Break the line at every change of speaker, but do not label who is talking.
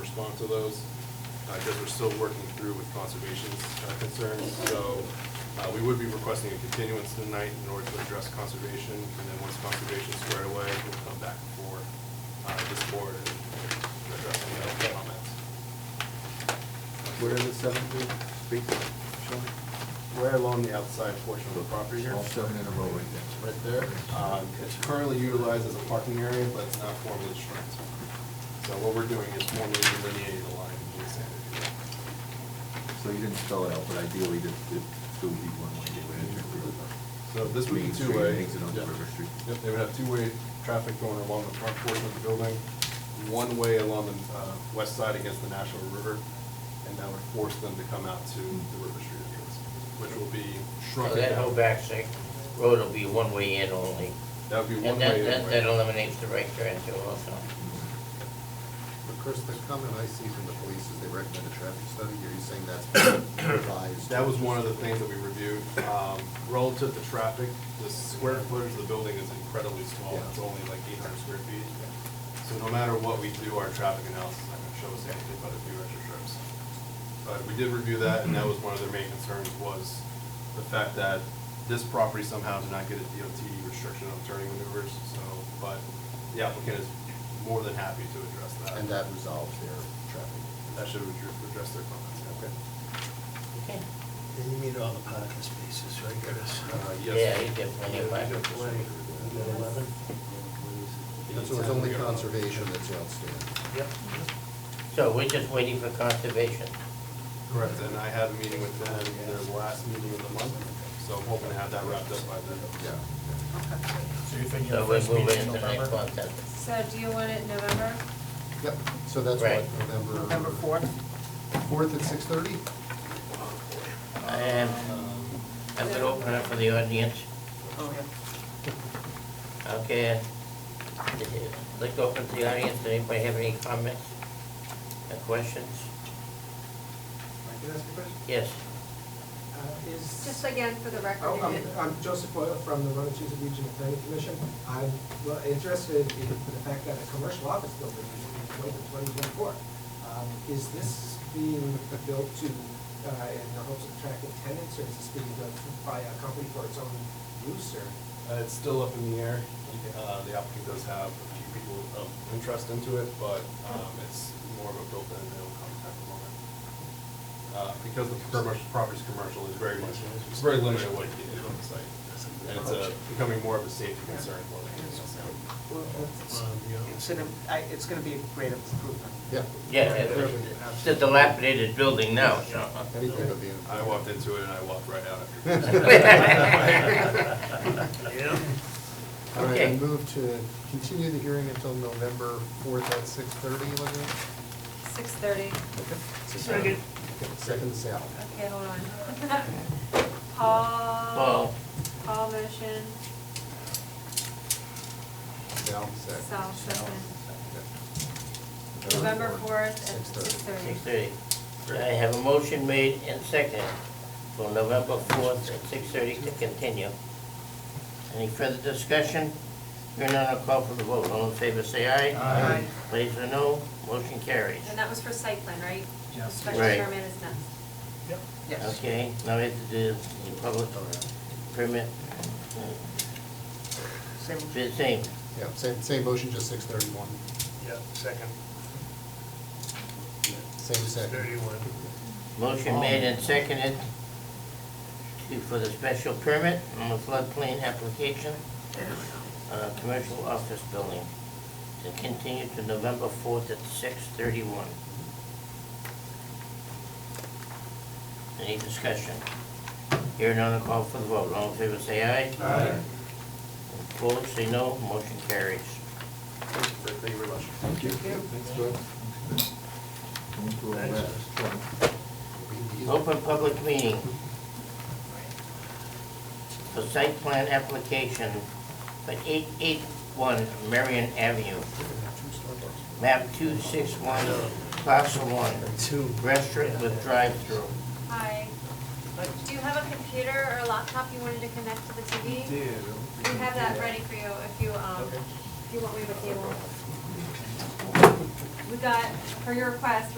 respond to those, because we're still working through with conservation's uh, concerns. So uh, we would be requesting a continuance tonight in order to address conservation, and then once conservation's squared away, we'll come back before uh, this board and address any other comments.
Where are the seven feet spaces? Show me.
We're along the outside portion of the property here.
All seven in a row right there. Uh,
right there. Um, It's currently utilized as a parking area, but it's not formally striped. So what we're doing is formally delineating the line and doing sand.
So you didn't spell it out, but ideally, it, it it would be one way. they would enter through the-
So this would be
Main Street,
two-way.
Exit onto
Yeah.
River Street.
Yep, they would have two-way traffic going along the front portion of the building, one way along the uh, west side against the National River, and that would force them to come out to the River Street entrance, which will be
So
shrunken
that whole
down.
back sec, road will be one-way in only.
That would be one
And
way.
that,
in,
that
right?
that eliminates the right turn too also.
But Chris, the comment I see from the police is they recommend a traffic study, are you saying that's been revised?
That was one of the things that we reviewed. Um, Relative to traffic, the square footage of the building is incredibly small. It's only like 800 square feet. So no matter what we do, our traffic analysis is not going to show us anything but a few extra trips. But we did review that, and that was one of their main concerns was the fact that this property somehow did not get a DOT restriction on turning maneuvers, so, but the applicant is more than happy to address that.
And that resolves their traffic.
That should address their comments. Okay.
Okay.
And you need all the parking spaces, right, Curtis?
Yeah, you get plenty of
Like,
parking.
You got eleven?
And so it's only conservation that's outstanding.
Yep.
So we're just waiting for conservation.
Correct, and I had a meeting with them, their last meeting of the month, so I'm hoping to have that wrapped up by then.
Yeah.
So you're thinking
So
the
we're
first meeting
moving
in
into the next
November?
month then.
So do you want it in November?
Yep, so that's
Right.
what, November.
November fourth.
Fourth at six thirty?
Um, I'm gonna open it up for the audience.
Oh, yeah.
Okay. Let's open to the audience. Anybody have any comments or questions?
Can I ask a question?
Yes.
Uh, Is.
Just again, for the
Oh,
record.
I'm, I'm Joseph Boyle from the Monticello Regional Planning Commission. I'm well, interested in the fact that a commercial office building is being built in twenty twenty-four. Um, Is this being built to, uh, in the hopes of attracting tenants, or is this being built by a company for its own use, or?
Uh, It's still up in the air, Uh, the applicant does have a few people of interest into it, but um, it's more of a built-in, it'll come at the moment. Uh, Because the commercial, property's commercial is very much, it's very limited what you can do on the site. And it's uh, becoming more of a safety concern more than anything else now.
It's an, I, it's gonna be a great improvement.
Yeah.
Yeah, it's a dilapidated building now, so.
Anything but the.
I walked into it and I walked right out.
All right, I
Okay.
move to uh, continue the hearing until November fourth at six thirty, Olivia?
Six thirty.
Second.
Second, Sal.
Okay, hold on. Paul.
Paul.
Paul motion,
Sal, second.
Sal second.
Okay.
November fourth at six
6:30.
thirty.
Six thirty. I have a motion made and second for November fourth at six thirty to continue. Any further discussion? Hearing none, I'll call for the vote. All in favor, say aye.
Aye. Aye.
Opposed or no, motion carries.
And that was for site plan, right?
Yes.
Special
Right.
permit is next.
Yes.
Okay, now we have to do the public permit.
Same.
Be the same.
Yeah, same, same motion, just six thirty-one,
Yep, second,
same second.
Motion made and seconded to- for the special permit on the floodplain application, uh, commercial office building, to continue to November fourth at six thirty-one. Any discussion? Hearing none, I'll call for the vote. All in favor, say aye. Aye. Opposed, say no. Motion carries.
Thank you very much.
Thank you.
Thanks, Doug.
Going through all that.
Open public meeting. For site plan application for 881 Marion Avenue, map 261, parcel 1. Restaurant with drive-through.
Hi. Do you have a computer or a laptop you wanted to connect to the TV? We have that ready for you if you, um, if you want me to cable. we got, for your request,